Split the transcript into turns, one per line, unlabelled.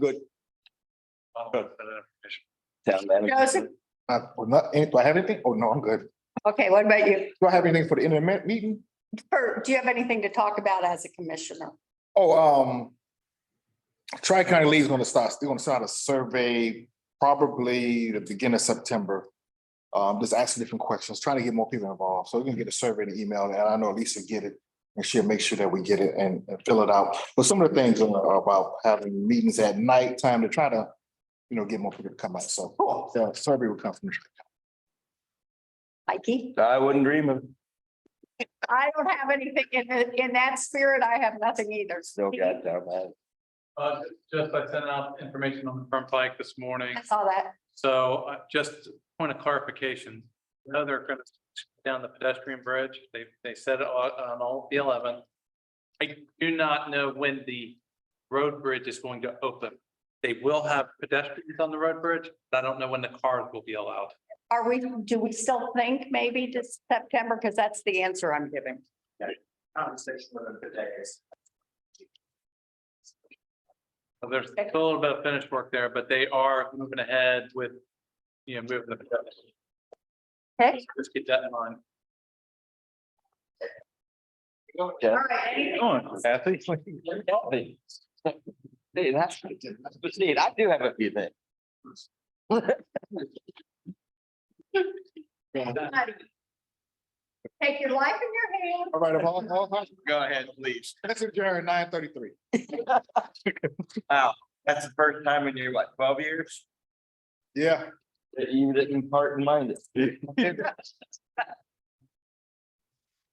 Town manager.
Joseph,
Uh, well, not, do I have anything? Oh, no, I'm good.
okay, what about you?
Do I have anything for the internet meeting?
Or do you have anything to talk about as a commissioner?
Oh, um. Tri-County League's gonna start, they're gonna start a survey probably the beginning of September. Um, just asking different questions, trying to get more people involved. So we're gonna get a survey and email, and I know Lisa get it. And she'll make sure that we get it and, and fill it out. But some of the things are about having meetings at night time to try to, you know, get more people to come out. So, the survey will come from. the
Mikey?
I wouldn't dream of,
I don't have anything in, the- in that spirit. I have nothing either.
still got town manager.
Uh, just I sent out information on the front pike this morning,
I saw that.
so uh, just point of clarification. Now they're gonna shut down the pedestrian bridge, they, they said it on on all the eleventh. I do not know when the road bridge is going to open. They will have pedestrians on the road bridge, but I don't know when the cars will be allowed.
Are we, do we still think maybe to September? Because that's the answer I'm giving.
conversation with them today is
So There's still a little bit of finished work there, but they are moving ahead with, you know, moving the pedestrian.
Okay.
Just keep that in mind.
All right, anything
Kathy? Kathy. See, that's, but see, I do have a few things.
else? Take your life in your hand.
All right, all, all,
Go ahead, please.
that's adjourned nine thirty-three.
Wow, that's the first time in your, what, twelve years?
Yeah.
You didn't part in mind.